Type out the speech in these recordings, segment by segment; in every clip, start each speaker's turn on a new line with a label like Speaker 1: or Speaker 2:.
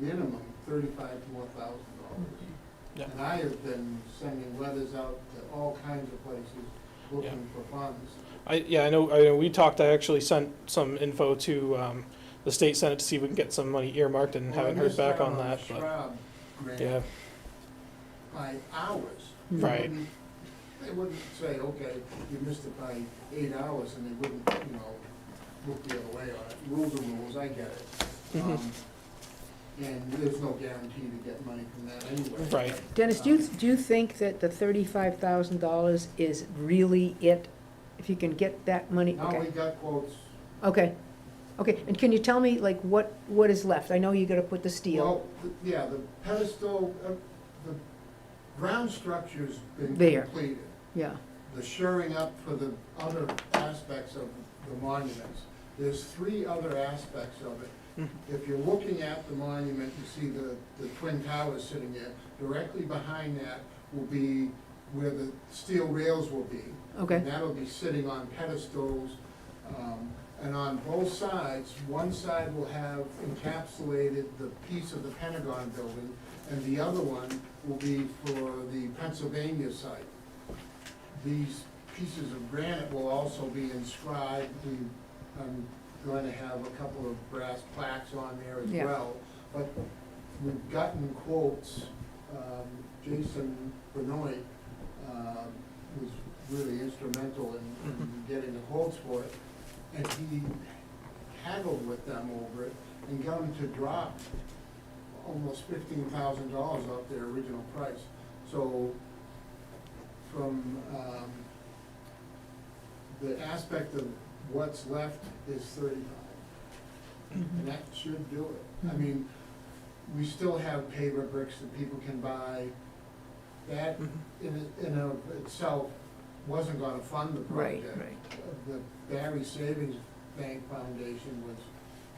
Speaker 1: minimum thirty-five to one thousand dollars.
Speaker 2: Yeah.
Speaker 1: And I have been sending letters out to all kinds of places looking for funds.
Speaker 2: I, yeah, I know, I know, we talked, I actually sent some info to, um, the state senate to see if we can get some money earmarked and
Speaker 1: Well, I
Speaker 2: haven't heard
Speaker 1: missed
Speaker 2: back
Speaker 1: out
Speaker 2: on
Speaker 1: the
Speaker 2: that, but,
Speaker 1: Schwab grant
Speaker 2: yeah,
Speaker 1: By hours. They
Speaker 2: Right.
Speaker 1: wouldn't- They wouldn't say, okay, you missed it by eight hours, and they wouldn't, you know, look the other way on it. Rules are rules, I get it.
Speaker 2: Mhm.
Speaker 1: Um, And there's no guarantee to get money from that anyway. Um,
Speaker 2: Right.
Speaker 3: Dennis, do you, do you think that the thirty-five thousand dollars is really it? If you can get that money,
Speaker 1: Now we
Speaker 3: okay,
Speaker 1: got quotes.
Speaker 3: okay, okay, and can you tell me, like, what, what is left? I know you gotta put the steel
Speaker 1: Well, th- yeah, the pedestal, uh, the ground structure's been
Speaker 3: There.
Speaker 1: completed.
Speaker 3: yeah,
Speaker 1: The shoring up for the other aspects of the monuments. There's three other aspects of it.
Speaker 2: Mhm.
Speaker 1: If you're looking at the monument, you see the, the twin towers sitting there. Directly behind that will be where the steel rails will be.
Speaker 3: Okay.
Speaker 1: And that'll be sitting on pedestals. um, And on both sides, one side will have encapsulated the piece of the Pentagon building, and the other one will be for the Pennsylvania site. These pieces of granite will also be inscribed, we, I'm going to have a couple of brass plaques on there as
Speaker 3: Yeah.
Speaker 1: well. But we've gotten quotes, um, Jason Benoit, um, was really instrumental in- in getting the quotes for it. And he haggled with them over it and got them to drop almost fifteen thousand dollars off their original price. So from, um, the aspect of what's left is thirty-five. And that should do it.
Speaker 3: Mm-hmm.
Speaker 1: I mean, we still have paver bricks that people can buy. That
Speaker 2: Mhm.
Speaker 3: Mm-hmm.
Speaker 1: in, in of itself wasn't gonna fund the
Speaker 3: right,
Speaker 1: project.
Speaker 3: right.
Speaker 1: The Barry Savings Bank Foundation was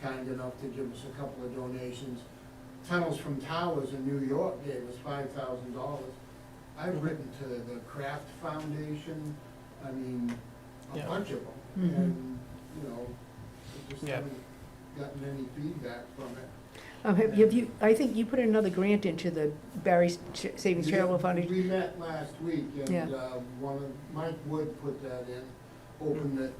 Speaker 1: kind enough to give us a couple of donations. Tunnels from Towers in New York gave us five thousand dollars. I've written to the Kraft Foundation, I mean, a
Speaker 2: Yeah.
Speaker 1: bunch of them,
Speaker 3: Mhm.
Speaker 1: and, you know, I just
Speaker 2: Yeah.
Speaker 1: haven't gotten any feedback from it.
Speaker 3: Um, have have you, I think you put another grant into the Barry Ch- Savings
Speaker 1: We-
Speaker 3: Charitable Foundation,
Speaker 1: We met last week, and,
Speaker 3: Yeah.
Speaker 1: uh, one of, Mike Wood put that in, opened it,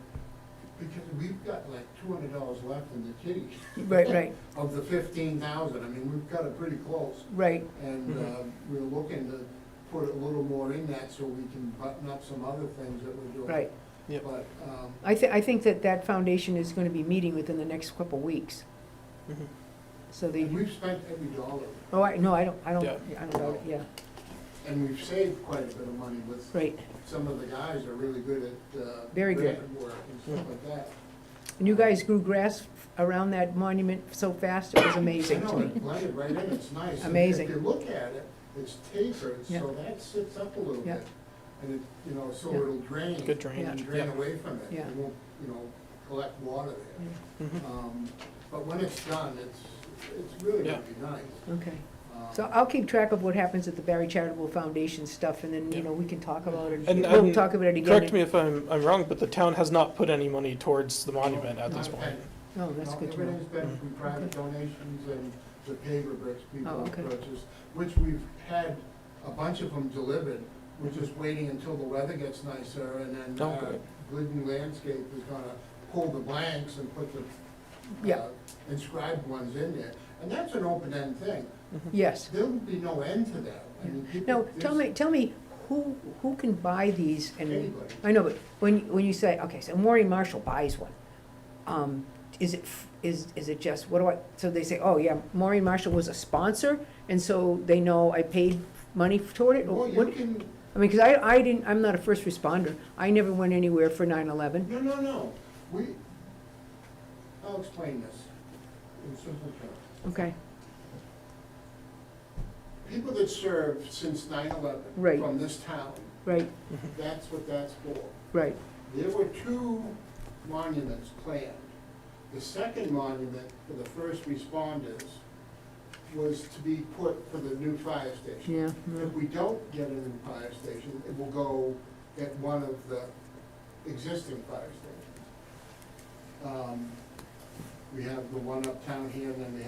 Speaker 1: because we've got like two hundred dollars left in the kitty.
Speaker 3: right, right,
Speaker 1: of the fifteen thousand, I mean, we've got it pretty close,
Speaker 3: right,
Speaker 1: and,
Speaker 2: Mhm.
Speaker 1: uh, we're looking to put a little more in that so we can button up some other things that we're doing.
Speaker 3: right.
Speaker 2: Yep.
Speaker 1: But, um,
Speaker 3: I thi, I think that that foundation is gonna be meeting within the next couple weeks,
Speaker 2: Mhm.
Speaker 3: so they,
Speaker 1: and we've spent every dollar,
Speaker 3: oh, I, no, I don't, I don't,
Speaker 2: Yeah.
Speaker 3: I don't doubt it, yeah,
Speaker 1: and we've saved quite a bit of money with,
Speaker 3: right.
Speaker 1: some of the guys are really good at, uh,
Speaker 3: Very good.
Speaker 1: grant work and stuff like that.
Speaker 3: And you guys grew grass around that monument so fast, it was amazing
Speaker 1: I
Speaker 3: to
Speaker 1: know,
Speaker 3: me.
Speaker 1: it blended right in, it's nice. And
Speaker 3: Amazing.
Speaker 1: If you look at it, it's tapered, so that sits up a little
Speaker 3: Yeah.
Speaker 1: bit. And it, you know, so
Speaker 3: Yeah.
Speaker 1: it'll drain.
Speaker 2: Good drainage,
Speaker 1: And
Speaker 2: yeah.
Speaker 1: drain away from it.
Speaker 3: Yeah.
Speaker 1: It won't, you know, collect water there.
Speaker 2: Mhm.
Speaker 1: Um, But when it's done, it's, it's really gonna be nice.
Speaker 3: Okay,
Speaker 1: Um,
Speaker 3: so I'll keep track of what happens at the Barry Charitable Foundation stuff, and then, you
Speaker 2: Yeah.
Speaker 3: know, we can talk about it,
Speaker 2: And,
Speaker 3: we'll
Speaker 2: um,
Speaker 3: talk about it again.
Speaker 2: Correct me if I'm, I'm wrong, but the town has not put any money towards the monument at
Speaker 1: not
Speaker 2: this
Speaker 1: a
Speaker 2: point.
Speaker 1: penny.
Speaker 3: Oh, that's
Speaker 1: No,
Speaker 3: good to know. Mm-hmm.
Speaker 1: Everything's been from private donations and the paver bricks
Speaker 3: Oh,
Speaker 1: people have
Speaker 3: okay.
Speaker 1: purchased, which we've had a bunch of them delivered. We're just waiting until the weather gets nicer and then
Speaker 2: Oh,
Speaker 1: uh,
Speaker 2: great.
Speaker 1: Glidden Landscape is gonna pull the blanks and put the
Speaker 3: Yeah.
Speaker 1: uh, inscribed ones in there. And that's an open-end thing.
Speaker 2: Mm-hmm.
Speaker 3: Yes.
Speaker 1: There'll be no end to that. I mean, people-
Speaker 3: Now, tell
Speaker 1: there's-
Speaker 3: me, tell me, who, who can buy these and,
Speaker 1: Anybody.
Speaker 3: I know, but when, when you say, okay, so Maureen Marshall buys one, um, is it, f- is, is it just, what do I, so they say, oh, yeah, Maureen Marshall was a sponsor, and so they know I paid money toward it, or
Speaker 1: Well, you
Speaker 3: what?
Speaker 1: can,
Speaker 3: I mean, because I, I didn't, I'm not a first responder. I never went anywhere for 9/11.
Speaker 1: No, no, no. We, I'll explain this in simple terms.
Speaker 3: Okay,
Speaker 1: People that served since 9/11
Speaker 3: Right.
Speaker 1: From this town,
Speaker 3: right,
Speaker 2: Mm-hmm.
Speaker 1: that's what that's for.
Speaker 3: right,
Speaker 1: There were two monuments planned. The second monument for the first responders was to be put for the new fire station.
Speaker 3: yeah,
Speaker 1: If we don't get a new fire station, it will go at one of the existing fire stations. Um, We have the one uptown here, and then we